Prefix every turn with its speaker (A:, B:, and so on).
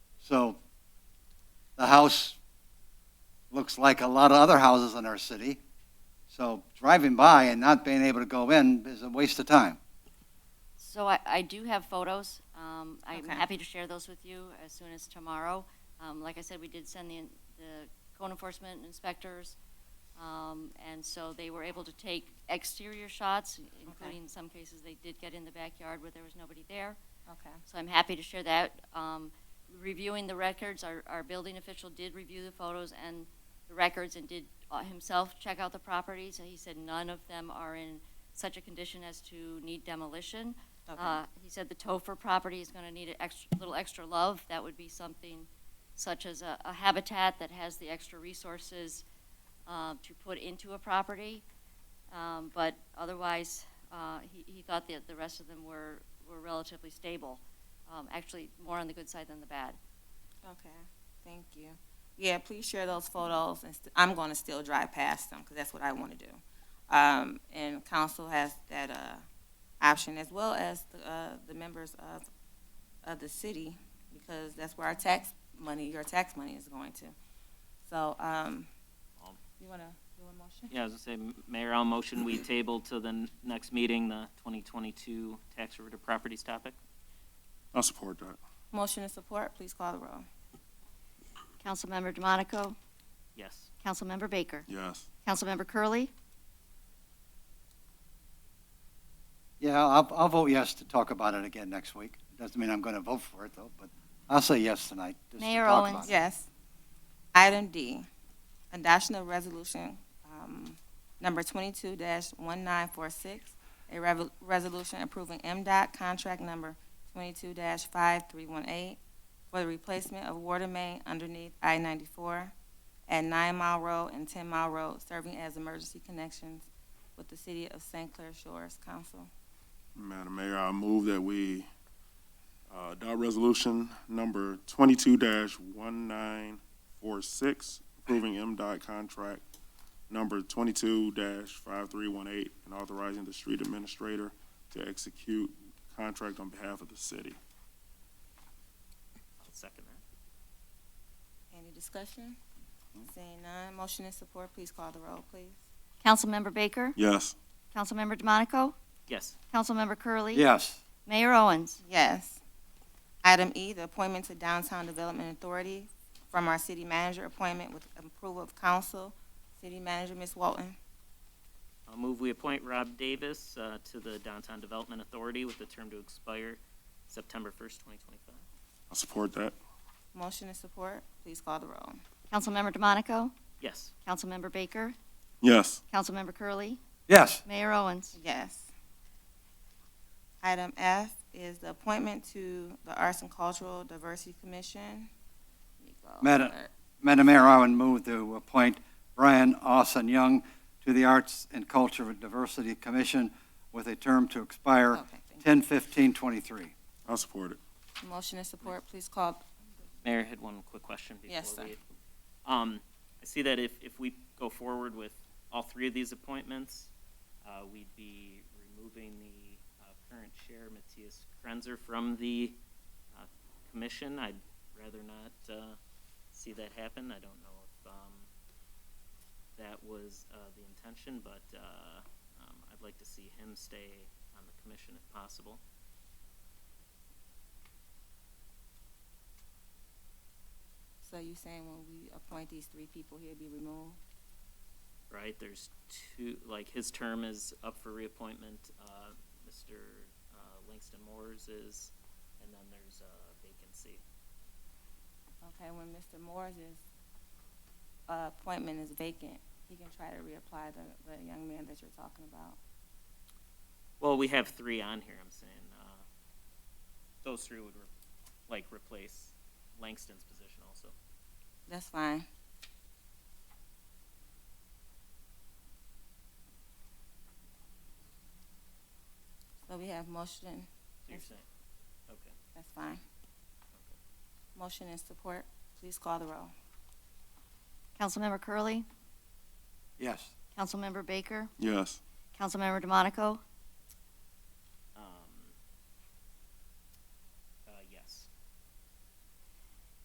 A: house looks like a lot of other houses in our city. So driving by and not being able to go in is a waste of time.
B: So I, I do have photos. Um, I'm
C: Okay.
B: happy to share those with you as soon as tomorrow. Um, like I said, we did send the, the code enforcement inspectors, um, and so they were able to take exterior shots, including in some cases they did get in the backyard where there was nobody there.
C: Okay.
B: So I'm happy to share that. Um, reviewing the records, our, our building official did review the photos and the records and did uh, himself check out the properties. And he said none of them are in such a condition as to need demolition.
C: Okay.
B: Uh, he said the Topher property is going to need a extra, little extra love. That would be something such as a, a habitat that has the extra resources uh, to put into a property. Um, but otherwise, uh, he, he thought that the rest of them were, were relatively stable. Um, actually, more on the good side than the bad.
C: Okay. Thank you. Yeah, please share those photos, and st- I'm going to still drive past them because that's what I want to do. Um, and council has that uh, option as well as the, uh, the members of of the city because that's where our tax money, your tax money, is going to. So, um,
D: Um,
C: you want to do a motion?
D: Yeah, I was gonna say, Mayor, I'll motion we table to the n- next meeting, the 2022 tax derivative properties topic.
E: I'll support that.
C: Motion and support. Please call the roll.
B: Councilmember DeMonico,
D: Yes.
B: Councilmember Baker,
E: Yes.
B: Councilmember Curley,
A: Yeah, I'll, I'll vote yes to talk about it again next week. Doesn't mean I'm going to vote for it though, but I'll say yes tonight. just to
B: Mayor
A: talk
B: Owens.
A: about it.
C: Yes. Item D, adoption of resolution, um, number twenty-two one nine four six, a rev- resolution approving MDOT contract number twenty-two five three one eight for the replacement of water main underneath I ninety-four at Nine Mile Road and Ten Mile Road, serving as emergency connections with the city of St. Clair Shores Council.
E: Madam Mayor, I move that we uh, adopt resolution number twenty-two one nine four six, approving MDOT contract number twenty-two five three one eight, and authorizing the street administrator to execute contract on behalf of the city.
D: I'll second that.
C: Any discussion? Seeing none, motion and support, please call the roll, please.
B: Councilmember Baker,
E: Yes.
B: Councilmember DeMonico,
D: Yes.
B: Councilmember Curley,
A: Yes.
B: Mayor Owens.
C: Yes. Item E, the appointment to Downtown Development Authority from our city manager appointment with approval of council. City manager, Ms. Walton.
D: I'll move we appoint Rob Davis uh, to the Downtown Development Authority with the term to expire September 1st, 2025.
E: I support that.
C: Motion and support, please call the roll.
B: Councilmember DeMonico,
D: Yes.
B: Councilmember Baker,
E: Yes.
B: Councilmember Curley,
A: Yes.
B: Mayor Owens.
C: Yes. Item F is the appointment to the Arts and Cultural Diversity Commission. Let me go
A: Madam-
C: over.
A: Madam Mayor, I would move to appoint Brian Austin Young to the Arts and Culture Diversity Commission with a term to expire
C: Okay, thank
A: 10/15/23.
E: I support it.
C: you. Motion and support, please call,
D: Mayor, I had one quick question before we.
C: Yes, sir.
D: Um, I see that if, if we go forward with all three of these appointments, uh, we'd be removing the, uh, current chair, Matthias Krenzer, from the, uh, commission. I'd rather not, uh, see that happen. I don't know if, um, that was, uh, the intention, but, uh, um, I'd like to see him stay on the commission if possible.
C: so you saying when we appoint these three people, he'll be removed?
D: right? There's two, like, his term is up for reappointment, uh, Mr. uh, Langston Moore's is, and then there's a vacancy.
C: Okay, when Mr. Moore's uh, appointment is vacant, he can try to reapply the, the young man that you're talking about.
D: Well, we have three on here, I'm saying, uh, those three would, re- like, replace Langston's position also.
C: That's fine. So we have motion,
D: So you're saying, okay.
C: that's fine. Motion and support, please call the roll.
B: Councilmember Curley,
A: Yes.
B: Councilmember Baker,
E: Yes.
B: Councilmember DeMonico,
D: Um, uh,